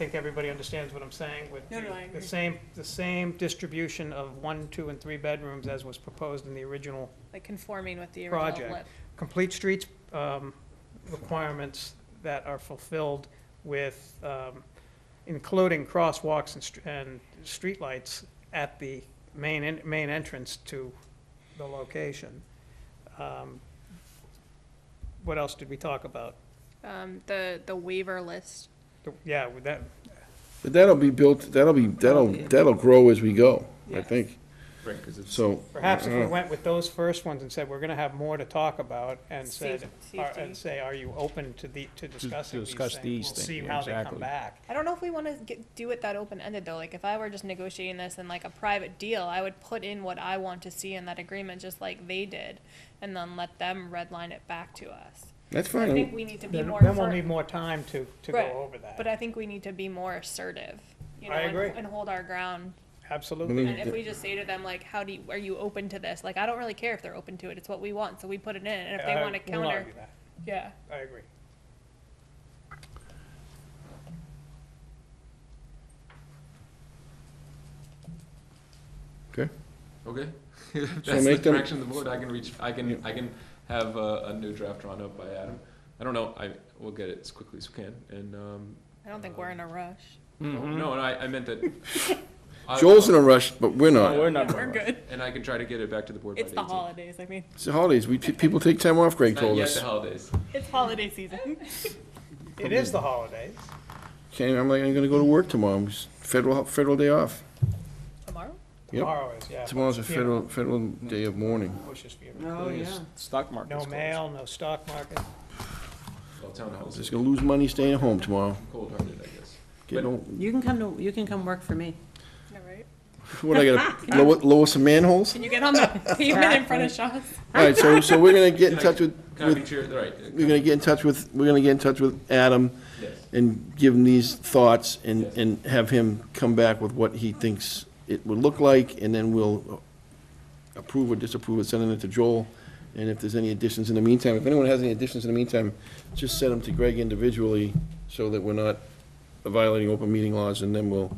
think everybody understands what I'm saying with No, the- no, I the agree. same, the same distribution of one, two, and three bedrooms as was proposed in the original. like conforming with the Project. original lip. Complete streets um, requirements that are fulfilled with, um, including crosswalks and, str- and streetlights at the main, en- main entrance to the location. Um, What else did we talk about? Um, the, the waiver list, The- Yeah, with that, But that'll be built, that'll be, that'll, that'll grow as we go, I Yes. think, Right, because it's. so. uh, Perhaps if I we don't know. went with those first ones and said, we're gonna have more to talk about, and said, Safe- are- safety. and say, are you open to the, to discussing these discuss things? these We'll things, See yeah, how they come exactly. back. I don't know if we wanna get, do it that open-ended though, like if I were just negotiating this in like a private deal, I would put in what I want to see in that agreement, just like they did, and then let them redline it back to us. That's I think fine, we need to be Then, more. then we'll fir- need more time to, to Right. go over But that. I think we need to be more assertive, you know, I and, agree. and hold our ground. Absolutely. And if we just say to them like, how do you, are you open to this? Like, I don't really care if they're open to it, it's what we want, so we put it in, and if they I wanna won't counter, argue that. yeah. I agree. okay? Okay. If That's the make them- direction of the board. I can reach, I can, I can have a, a new draft drawn up by Adam. I don't know, I, we'll get it as quickly as we can, and, um, I don't think we're in a rush. Mm-hmm. no, no, I, I meant that. I- Joel's in a rush, but we're not. We're not. We're good. And I can try to get it back to the board by the It's the 18th. holidays, I mean, It's the holidays, we, pe- people take time off, Greg Not told yet us. the holidays. it's holiday season. It is the holidays. Okay, I'm like, I'm gonna go to work tomorrow, It's federal, federal day off. Tomorrow? Yep. Tomorrow is, yeah. Tomorrow's a Yeah. federal, federal day of mourning. Bushes for you. Oh, Stock market. No mail, no stock market. Well, town halls Just is gonna lose money staying at home tomorrow. cold-hearted, I guess. Get no, You can come to, you can come work for me. All right. what, I gotta lower, lower some manholes? Can you get on the pavement in front of Shaw's? All right, so, so we're gonna get in Can I- touch with, Can I be with, cheered, right, we're gonna get in touch with, we're gonna get in touch with Adam yes. and give him these thoughts and, Yes. and have him come back with what he thinks it would look like, and then we'll approve or disapprove it, sending it to Joel. And if there's any additions in the meantime, if anyone has any additions in the meantime, just send them to Greg individually so that we're not violating open meeting laws, and then we'll,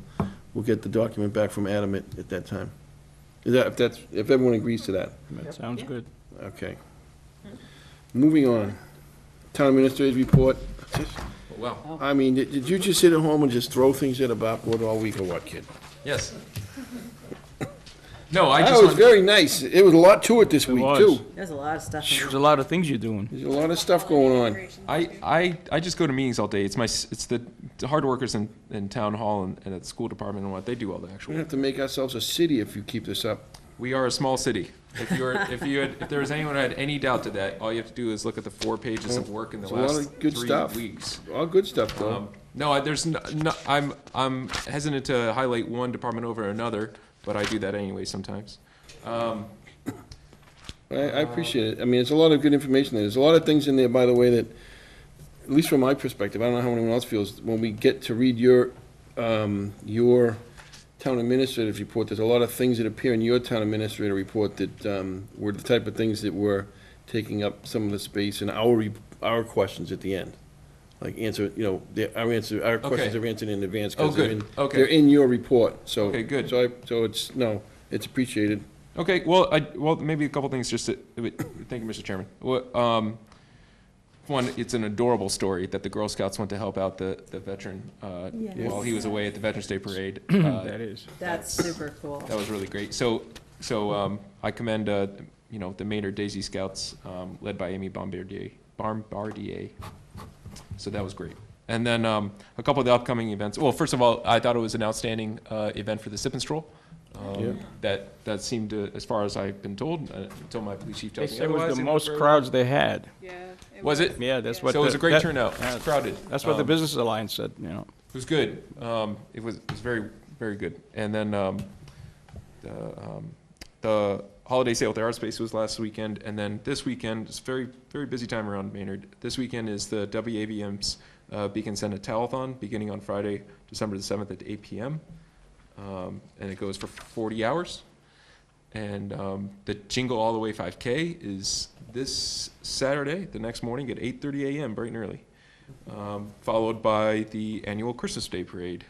we'll get the document back from Adam at, at that time. Is that, if that's, if everyone agrees to that, That sounds good. okay. Moving on, town administrator's report. Wow, I mean, did did you just sit at home and just throw things at a backboard all week or what, kid? yes. No, I just. That was wanted- very nice. It was a lot to it this week, was. too. There's a lot of stuff. in there. There's a lot of things you're doing. There's a lot of stuff going on. I, I, I just go to meetings all day. It's my, s- it's the the hard workers in, in town hall and, and at the school department and what, they do all the actual We're gonna have to make ourselves a city if you keep this up. We are a small city. If you were, if you had, if there was anyone who had any doubt to that, all you have to do is look at the four pages of work in the It's a lot last of good stuff. three weeks. All good stuff, though. Um, No, I- there's, no, no- I'm, I'm hesitant to highlight one department over another, but I do that anyway sometimes. Um, I, I appreciate it. I mean, there's a lot of good information there. There's a lot of things in there, by the way, that, at least from my perspective, I don't know how anyone else feels, when we get to read your, um, your town administrative report, there's a lot of things that appear in your town administrator report that, um, were the type of things that were taking up some of the space in our, re- our questions at the end. Like answer, you know, the- our answer, our questions are answered in advance. 'cause Oh, good. they're in- Okay. They're in your report, so. Okay, good. So I, so it's, no, it's appreciated. Okay, well, I, well, maybe a couple things just to, uh, wait, thank you, Mr. Chairman. Well, um, One, it's an adorable story that the Girl Scouts went to help out the, the veteran, uh, Yes. while he was away at the Veterans Day Parade. Uh, Mm, That is. That's super cool. That was really great. So, so um, I commend, uh, you know, the Maynard Daisy Scouts, um, led by Amy Bombardier. Bombardier. So that was great. And then um, a couple of the upcoming events. Well, first of all, I thought it was an outstanding uh, event for the Sip and Stroll. Um, Yeah. That that seemed, to, as far as I've been told, uh, until my police chief They tells me said it was otherwise, the most very- crowds they had. Yeah. Was it? Yeah, that's what. so it was the- a great that- turnout. yeah, It's crowded. That's what the Um, Business Alliance said, you know. It was good. Um, it was, it was very, very good. And then, um, the, um, the holiday sale at the art space was last weekend. And then this weekend, it's very, very busy time around Maynard. This weekend is the WAVM's, uh, Beacon Senate Telethon, beginning on Friday, December the seventh at eight PM. Um, and it goes for forty hours. And, um, the Jingle All the Way five K is this Saturday, the next morning at eight thirty AM, bright and early. um, followed by the annual Christmas Day Parade.